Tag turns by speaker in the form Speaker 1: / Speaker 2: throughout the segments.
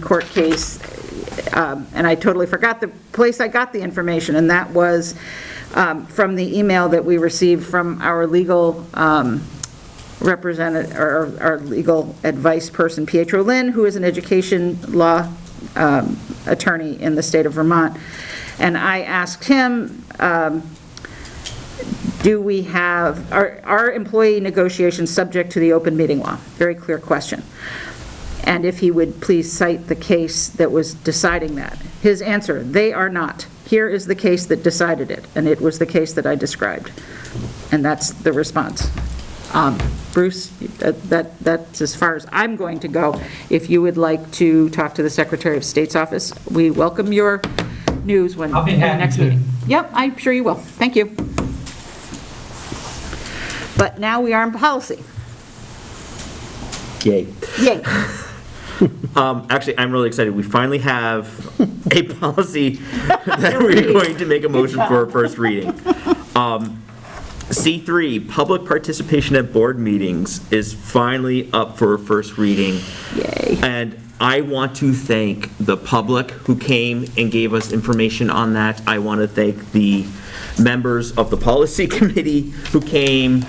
Speaker 1: court case, um, and I totally forgot the place I got the information, and that was um, from the email that we received from our legal um, representative, or our legal advice person, Pietro Lynn, who is an education law um, attorney in the state of Vermont. And I asked him, uh, do we have, are, are employee negotiations subject to the open meeting law? Very clear question. And if he would please cite the case that was deciding that. His answer, they are not. Here is the case that decided it, and it was the case that I described. And that's the response. Um, Bruce, that, that- that's as far as I'm going to go. If you would like to talk to the Secretary of State's office, we welcome your news when,
Speaker 2: I'll be
Speaker 1: in the
Speaker 2: happy
Speaker 1: next
Speaker 2: to.
Speaker 1: meeting. Yep, I'm sure you will. Thank you. But now we are in policy.
Speaker 3: Yay.
Speaker 1: Yay.
Speaker 3: Um, actually, I'm really excited. We finally have a policy that we're going to make a motion for a first reading. Um, C3, public participation at board meetings is finally up for a first reading.
Speaker 1: Yay.
Speaker 3: And I want to thank the public who came and gave us information on that. I want to thank the members of the policy committee who came,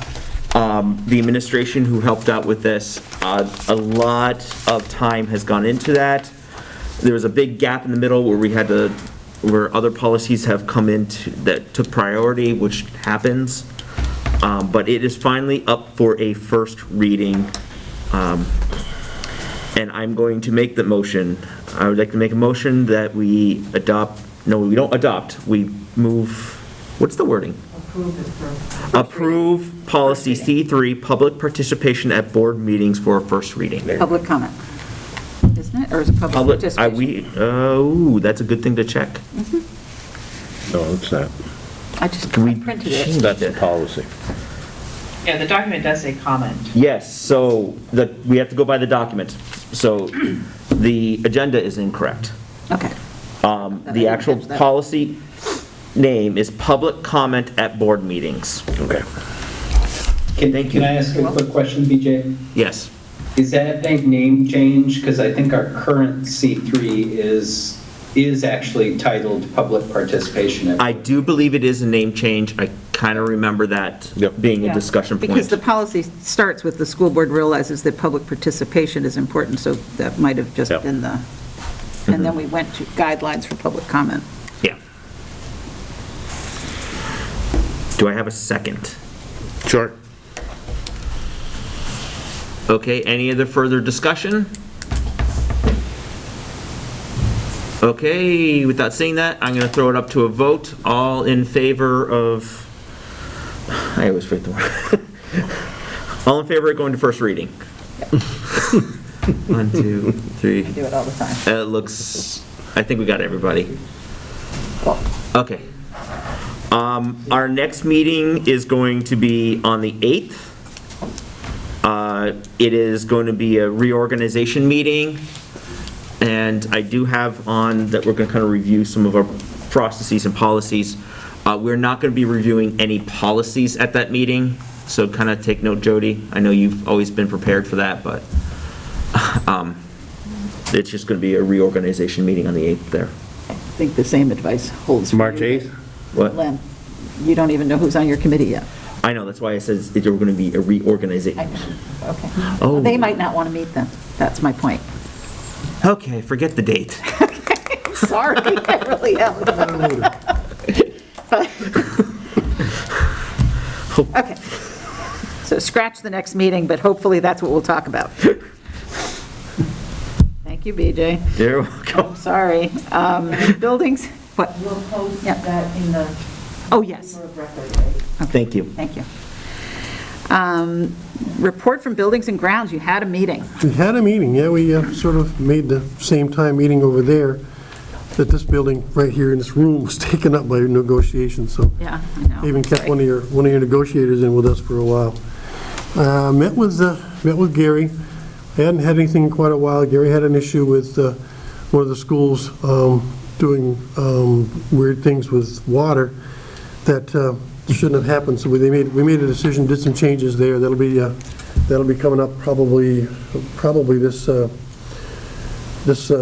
Speaker 3: um, the administration who helped out with this. Uh, A lot of time has gone into that. There was a big gap in the middle where we had to, where other policies have come in to- that took priority, which happens. Um, But it is finally up for a first reading. Um, and I'm going to make the motion. I would like to make a motion that we adopt, no, we don't adopt, we move, what's the wording? Approve policy C3, public participation at board meetings for a first reading.
Speaker 1: Public comment, isn't it? Or is it public
Speaker 3: Public, I,
Speaker 1: participation? Mm-hmm.
Speaker 3: we, oh, that's a good thing to check.
Speaker 4: No, it's not.
Speaker 1: I just
Speaker 3: Can we
Speaker 1: I printed
Speaker 3: change
Speaker 1: it.
Speaker 4: That's the
Speaker 3: it?
Speaker 4: policy.
Speaker 2: Yeah, the document does say comment.
Speaker 3: Yes, so the, we have to go by the document. So the agenda is incorrect.
Speaker 1: Okay.
Speaker 3: Um,
Speaker 1: I
Speaker 3: The
Speaker 1: didn't
Speaker 3: actual
Speaker 1: catch that.
Speaker 3: policy name is public comment at board meetings.
Speaker 4: Okay.
Speaker 5: Can,
Speaker 3: Thank
Speaker 5: can
Speaker 3: you.
Speaker 5: I ask a quick question, BJ?
Speaker 3: Yes.
Speaker 5: Is that a name change? Because I think our current C3 is, is actually titled Public Participation.
Speaker 3: I do believe it is a name change. I kind of remember that
Speaker 4: Yep.
Speaker 3: being a discussion
Speaker 1: Because
Speaker 3: point.
Speaker 1: the policy starts with the school board realizes that public participation is important, so that might have just
Speaker 4: Yeah.
Speaker 1: been the, and
Speaker 3: Mm-hmm.
Speaker 1: then we went to guidelines for public comment.
Speaker 3: Yeah. Do I have a second?
Speaker 4: Sure.
Speaker 3: Okay, any other further discussion? Okay, without seeing that, I'm going to throw it up to a vote. All in favor of, I always forget the word. All in favor of going to first reading? One, two, three.
Speaker 1: We do it all the time.
Speaker 3: Uh, It looks, I think we got everybody. Okay. Um, Our next meeting is going to be on the 8th. Uh, It is going to be a reorganization meeting, and I do have on that we're going to kind of review some of our processes and policies. Uh, We're not going to be reviewing any policies at that meeting, so kind of take note, Jody. I know you've always been prepared for that, but um, it's just going to be a reorganization meeting on the 8th there.
Speaker 1: I think the same advice holds. for
Speaker 4: March
Speaker 1: you.
Speaker 4: 8th?
Speaker 3: What?
Speaker 1: Len, you don't even know who's on your committee yet.
Speaker 3: I know, that's why I said that you're going to be a
Speaker 1: I
Speaker 3: reorganization.
Speaker 1: know, okay.
Speaker 3: Oh.
Speaker 1: They might not want to meet then, that's my point.
Speaker 3: Okay, forget the date.
Speaker 1: Sorry, I really am. Okay. So scratch the next meeting, but hopefully that's what we'll talk about. Thank you, BJ.
Speaker 3: You're welcome.
Speaker 1: Sorry. Um, Buildings, what?
Speaker 6: We'll post
Speaker 1: Yeah.
Speaker 6: that in the
Speaker 1: Oh, yes.
Speaker 6: Chamber of Record, right?
Speaker 3: Thank you.
Speaker 1: Thank you. Um, Report from Buildings and Grounds, you had a meeting.
Speaker 7: We had a meeting, yeah, we uh, sort of made the same time meeting over there that this building right here in this room was taken up by negotiations, so
Speaker 1: Yeah, I know.
Speaker 7: they even kept one of your, one of your negotiators in with us for a while. Uh, Met with, uh, met with Gary, I hadn't had anything in quite a while, Gary had an issue with uh, one of the schools um, doing um, weird things with water that uh, shouldn't have happened, so we, they made, we made a decision, did some changes there, that'll be, uh, that'll be coming up probably, probably this, uh, this uh,